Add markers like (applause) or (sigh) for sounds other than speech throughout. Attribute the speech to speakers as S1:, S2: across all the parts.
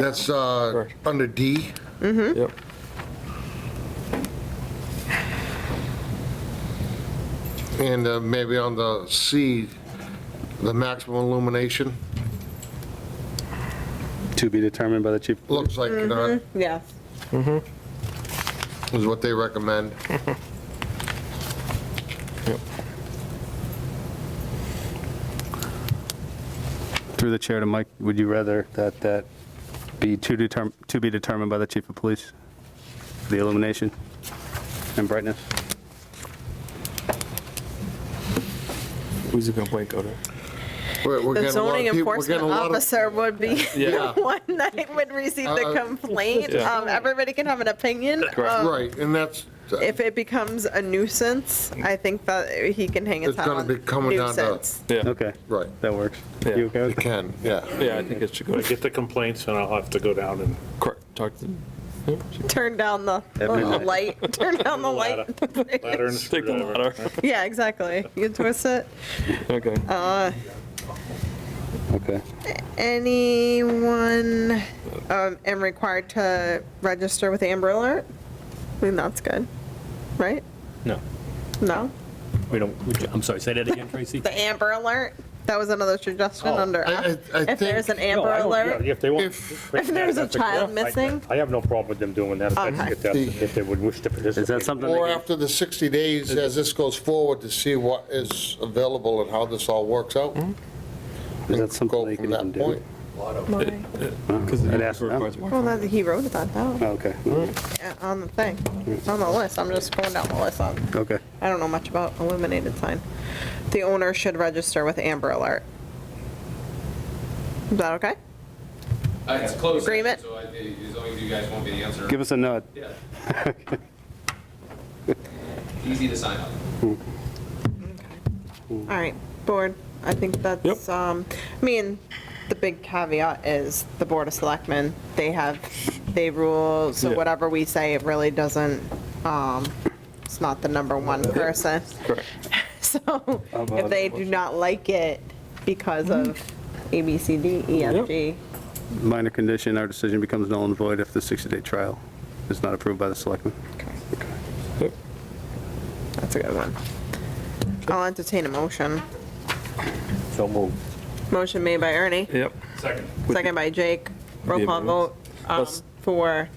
S1: That's uh,
S2: Correct.
S1: under D.
S3: Mm-hmm.
S2: Yep.
S1: And uh, maybe on the C, the maximum illumination,
S4: To be determined by the chief.
S1: looks like it uh,
S3: Mm-hmm, Yeah.
S1: is what they recommend.
S4: Through the chair to Mike, would you rather that that be to determ, to be determined by the chief of police? The illumination and brightness?
S2: Who's the complaint go to?
S1: We're we're
S3: The
S1: getting a lot of
S3: zoning
S1: people- we're
S3: enforcement
S1: getting a lot of-
S3: officer would be
S1: (laughs) Yeah.
S3: the (laughs) one that would receive
S1: Uh,
S3: the complaint.
S2: Yeah.
S3: Um, everybody can have an opinion. Um,
S1: Right, and that's, uh,
S3: If it becomes a nuisance, I think that he can hang his
S1: It's
S3: hat
S1: gonna
S3: on
S1: be coming down to-
S3: nuisance.
S2: Yeah.
S4: Okay,
S1: right,
S4: that works.
S2: Yeah.
S4: You okay
S1: it
S4: with that?
S1: can, yeah.
S2: Yeah, I think it should go to
S5: Get the complaints and I'll have to go down and
S2: court. Talk to.
S3: Turn down the,
S4: At
S3: oh, the
S4: midnight.
S3: light, (laughs) turn down the
S5: ladder,
S3: light.
S5: ladder and
S2: Take the
S5: screwdriver.
S2: ladder.
S3: (laughs) Yeah, exactly. You twist it.
S2: Okay.
S3: Uh,
S4: Okay.
S3: anyone, um, am required to register with Amber Alert? I think that's good, right?
S6: No,
S3: No?
S6: we don't, we- I'm sorry, say that again, Tracy?
S3: The Amber Alert, that was another suggestion
S6: Oh,
S3: under
S1: I- I-
S3: F.
S1: I
S3: If there's an
S1: think-
S3: Amber
S5: No, I don't- yeah,
S3: Alert,
S5: If they want.
S1: If-
S3: if there's a
S5: That's
S3: child
S5: I-
S3: missing,
S5: I have no problem with them doing that, if that's
S3: Okay.
S5: what that's- if they would wish to participate.
S4: Is that something?
S1: Or
S4: they can-
S1: after the 60 days, as this goes forward, to see what is available and how this all works out.
S4: Is
S1: and
S4: that Hmm? something
S1: go
S4: they
S1: from
S4: can
S1: that
S4: even do?
S1: point.
S3: why?
S2: Because
S4: I'd ask them.
S3: Well, that, he wrote that down,
S4: Oh, Okay,
S1: Mm-hmm.
S3: uh, on the thing, It's on the list, I'm just going down the list on,
S4: okay.
S3: I don't know much about illuminated sign. The owner should register with Amber Alert. Is that okay?
S7: Uh, It's closed.
S3: Agreement?
S7: So I, as long as you guys won't be the answer.
S4: Give us a nod.
S7: Yeah. Easy to sign up.
S3: All right, board, I think that's, um, I mean, the big caveat is the Board of Selectmen, they have, they rule, so
S2: Yeah.
S3: whatever we say, it really doesn't, um, it's not the number one person.
S2: Correct.
S3: (laughs) So if
S2: about
S3: they do not like it because of
S2: Mm-hmm.
S3: A, B, C, D, E, F,
S2: Yep.
S3: G,
S4: Minor condition, our decision becomes null and void if the 60-day trial is not approved by the selectmen.
S3: that's a good one. I'll entertain a motion.
S4: So move.
S3: Motion made by Ernie,
S2: Yep.
S5: Second.
S3: second by Jake, roll call vote, um,
S2: Let's-
S3: for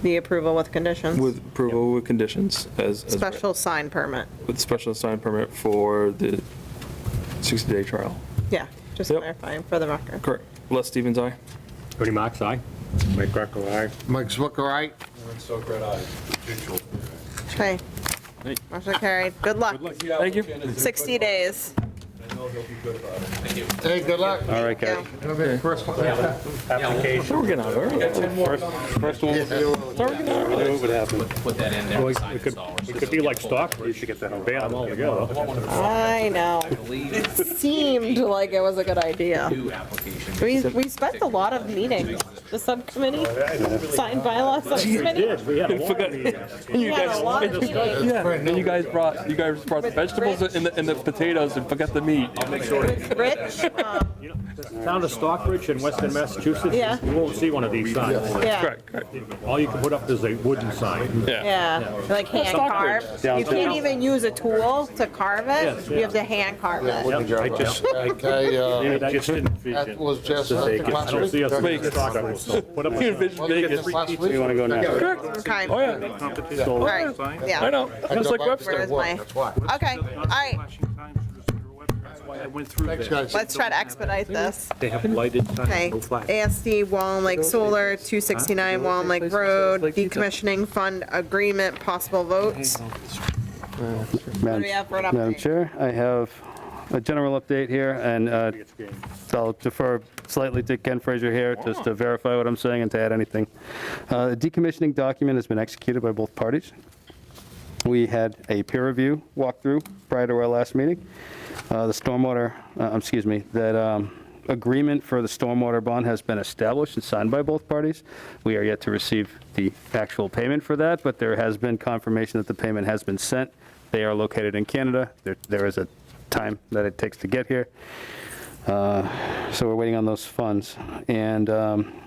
S3: the approval with conditions.
S2: With approval with conditions as. as read.
S3: Special sign permit,
S2: With special sign permit for the 60-day trial.
S3: yeah, just
S2: Yep.
S3: clarifying for the record.
S2: Correct. Les Stevens, aye.
S5: Ernie Mac's aye. Mike Greco, aye.
S1: Mike Zwicker, right?
S3: Okay. Motion carried, good luck,
S2: Thank you.
S3: 60 days.
S1: Hey, good luck.
S4: All right, guys.
S3: Go.
S2: Sure, We're getting out early.
S4: First one.
S7: What happened? Put that in there, sign
S5: It could,
S7: install.
S5: it could be like Stockbridge, you get that whole band all together.
S3: I know,
S7: I believe
S3: seemed like it was a good idea.
S7: new application. Oh,
S3: We, we spent a lot of meetings, the subcommittee, sign bylaw subcommittee.
S5: Yes, we had a lot of these.
S3: We had a lot of meetings.
S2: Yeah, and you guys brought, you guys brought the vegetables and the, and the potatoes and forgot the meat.
S3: Rich, um,
S5: Town of Stockbridge in western Massachusetts,
S3: Yeah.
S5: you won't see one of these signs.
S3: yeah,
S5: All you can put up is a wooden sign.
S3: yeah, like hand carved. You can't even use a tool to carve it, you have to hand carve it.
S5: I just,
S1: Okay, uh,
S5: I just didn't
S1: that
S5: vision.
S1: was just. uh, the
S5: I don't see us
S1: class-
S5: in Stockbridge. Put up
S2: You
S5: a
S2: envisioned
S1: Well, you get
S2: Vegas.
S1: this last week?
S4: You want to go now?
S3: Okay,
S2: Oh, yeah,
S3: all right, yeah.
S2: I know.
S1: I
S2: Just
S1: go back
S2: like
S1: to
S2: Webster.
S1: the
S3: Where's
S1: work,
S3: my-
S1: That's why.
S3: Okay, all right,
S5: I went through
S1: Thanks,
S5: there.
S1: guys.
S3: let's try to expedite this.
S5: They have lighted
S3: Okay,
S5: signs, no flags.
S3: ASD Wallen Lake Solar, 269 Wallen Lake Road, decommissioning fund agreement, possible votes.
S4: Madam-
S3: we have for an
S4: Madam
S3: update?
S4: Chair, I have a general update here, and uh, I'll defer slightly to Ken Fraser here, just to verify what I'm saying and to add anything. Uh, The decommissioning document has been executed by both parties. We had a peer review walkthrough prior to our last meeting. Uh, The stormwater, uh, excuse me, that um, agreement for the stormwater bond has been established and signed by both parties. We are yet to receive the actual payment for that, but there has been confirmation that the payment has been sent. They are located in Canada. There There is a time that it takes to get here. Uh, So we're waiting on those funds. And um,